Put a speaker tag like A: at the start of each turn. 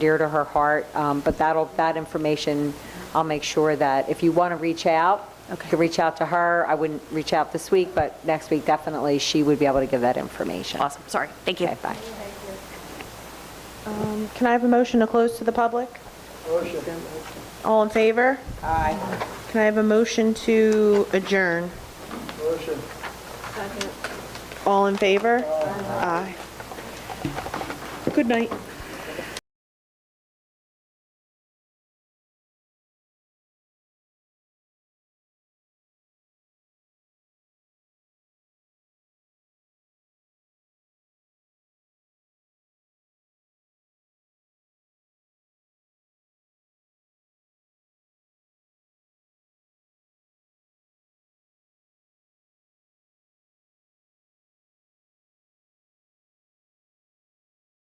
A: dear to her heart, um, but that'll, that information, I'll make sure that if you want to reach out, you
B: Okay.
A: can reach out to her. I wouldn't reach out this week, but next week definitely, she would be able to give that information.
B: Awesome, sorry, thank you.
A: Okay, bye.
C: Can I have a motion to close to the public? All in favor? Aye. Can I have a motion to adjourn? All in favor? Aye. Good night.